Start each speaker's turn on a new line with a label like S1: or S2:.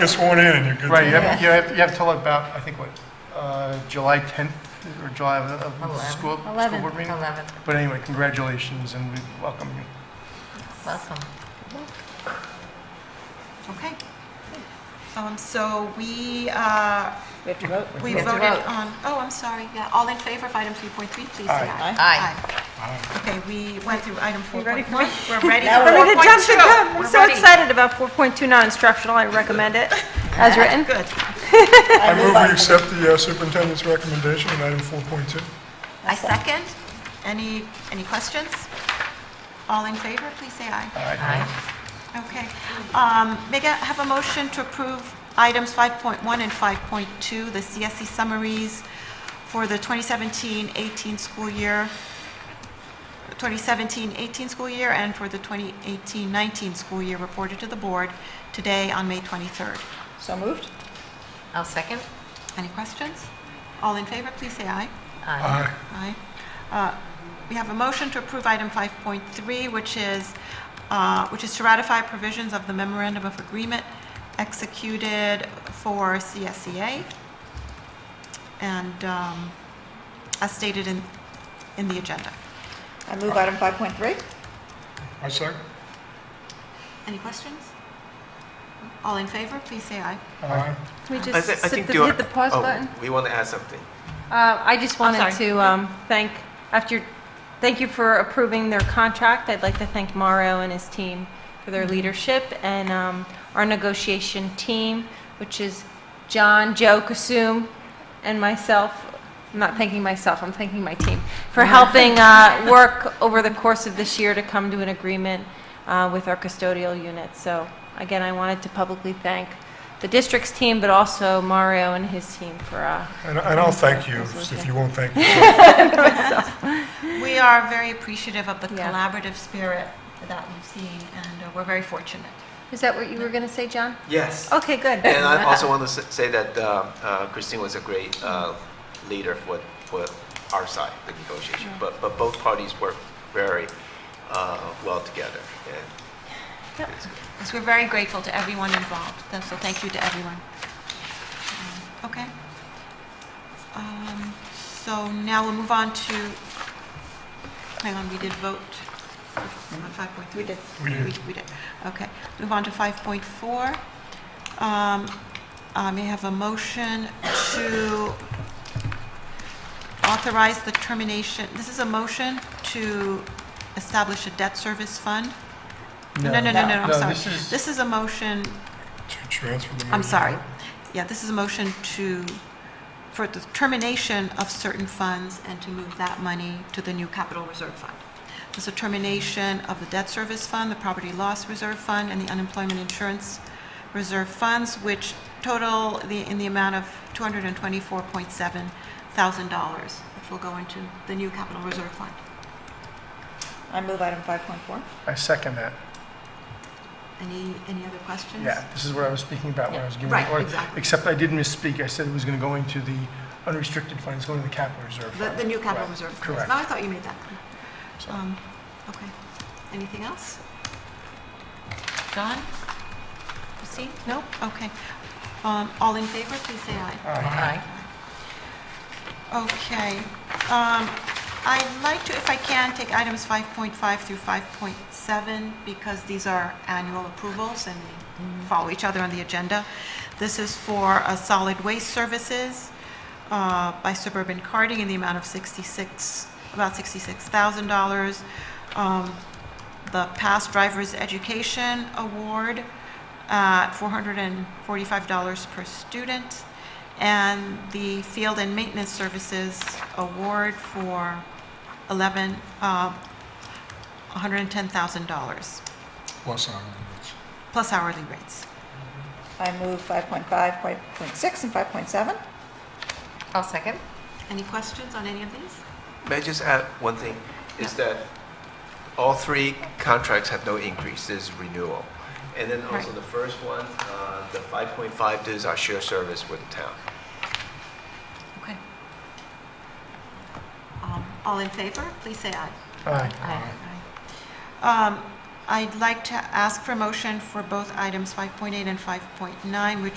S1: Get sworn in and you're good. to
S2: Right, you
S1: go.
S2: have, you have, you have till about, I think, what, uh, July 10th or July of of the
S3: Eleven.
S2: school, school
S4: Eleventh,
S2: board meeting?
S4: eleventh,
S2: But anyway, congratulations and we welcome you.
S4: welcome.
S3: okay. Um, So we, uh,
S5: We have to vote.
S3: we
S4: have to
S3: voted
S4: vote.
S3: on, oh, I'm sorry, yeah, all in favor of item 3.3, please say
S2: Aye.
S3: aye.
S4: Aye.
S3: Okay, we went through item 4.3.
S5: You ready for it?
S3: We're ready
S5: Now we're ready
S3: for 4.2.
S5: to jump the gun. I'm
S3: We're
S5: so
S3: ready.
S5: excited about 4.2 non-instructional. I recommend it as written.
S3: Good.
S1: I move we accept the uh, superintendent's recommendation on item 4.2.
S3: I second. Any, any questions? All in favor, please say aye.
S4: Aye.
S3: Okay. Um, May I have a motion to approve items 5.1 and 5.2, the CSE summaries for the 2017-18 school year, 2017-18 school year, and for the 2018-19 school year reported to the board today on May 23rd.
S5: So moved?
S4: I'll second.
S3: Any questions? All in favor, please say aye.
S4: Aye.
S1: Aye.
S3: Aye. Uh, We have a motion to approve item 5.3, which is, uh, which is to ratify provisions of the memorandum of agreement executed for CSEA, and um, as stated in, in the agenda.
S5: I move item 5.3.
S1: I second.
S3: Any questions? All in favor, please say aye.
S1: Aye.
S6: Can we
S7: I
S6: just
S7: thi- I
S6: sit
S7: think
S6: the-
S7: you are-
S6: hit the pause
S7: oh,
S6: button?
S7: We want to add something.
S6: Uh, I just wanted
S3: sorry.
S6: to um, thank, after, thank you for approving their contract. I'd like to thank Mauro and his team for their leadership and um, our negotiation team, which is John, Joe, Kasum, and myself. I'm not thanking myself, I'm thanking my team for helping uh, work over the course of this year to come to an agreement uh, with our custodial unit. So again, I wanted to publicly thank the district's team, but also Mario and his team for uh,
S1: And and I'll thank you if you won't thank me.
S3: We are very appreciative of the
S6: Yeah.
S3: collaborative spirit that we've seen, and uh, we're very fortunate.
S6: Is that what you were going to say, John?
S7: Yes.
S6: Okay, good.
S7: And I also want to s- say that uh, uh, Christine was a great uh, leader for, for our side, the negotiation. But, but both parties worked very uh, well together. And
S3: Yes, we're very grateful to everyone involved, th- so thank you to everyone. Um, Okay. Um, So now we'll move on to, hang on, we did vote on 5.3. Mm-hmm. We did.
S1: We did.
S3: We did, okay. Move on to 5.4. Um, I may have a motion to authorize the termination, this is a motion to establish a debt service fund? No, no, no, no, no, I'm sorry.
S2: this is-
S3: This is a motion,
S1: To transfer the money.
S3: I'm sorry. Yeah, this is a motion to, for the termination of certain funds and to move that money to the new capital reserve fund. This is a termination of the debt service fund, the property loss reserve fund, and the unemployment insurance reserve funds, which total the, in the amount of $224.7 thousand dollars, which will go into the new capital reserve fund.
S5: I move item 5.4.
S2: I second that.
S3: Any, any other questions?
S2: Yeah, this is what I was speaking about when I was giving
S3: Right,
S2: the order.
S3: exactly.
S2: Except I did misspeak. I said it was going to go into the unrestricted funds, going to the capital reserve
S3: The,
S2: fund.
S3: the new capital
S2: Right,
S3: reserve.
S2: Correct.
S3: No, I thought you made that clear.
S2: So-
S3: Um, Okay. Anything else? John? Christine? No? Okay. Um, All in favor, please say aye.
S4: Aye.
S3: Okay. Um, I'd like to, if I can, take items 5.5 through 5.7 because these are annual approvals and
S2: Mm-hmm.
S3: they follow each other on the agenda. This is for uh, solid waste services uh, by Suburban Carding in the amount of 66, about $66,000. Um, The past driver's education award uh, at $445 per student and the Field and Maintenance Services Award for 11, uh, $110,000,
S1: Plus hourly rates.
S3: plus hourly rates.
S5: I move 5.5, 5.6, and 5.7.
S4: I'll second.
S3: Any questions on any of these?
S7: may I just add one thing? Is that all three contracts have no increase. This is renewal. And then also
S3: Right.
S7: the first one, uh, the 5.5, this is our share service with the town.
S3: Okay. Um, All in favor, please say aye.
S2: Aye.
S4: Aye.
S3: Um, I'd like to ask for motion for both items 5.8 and 5.9, which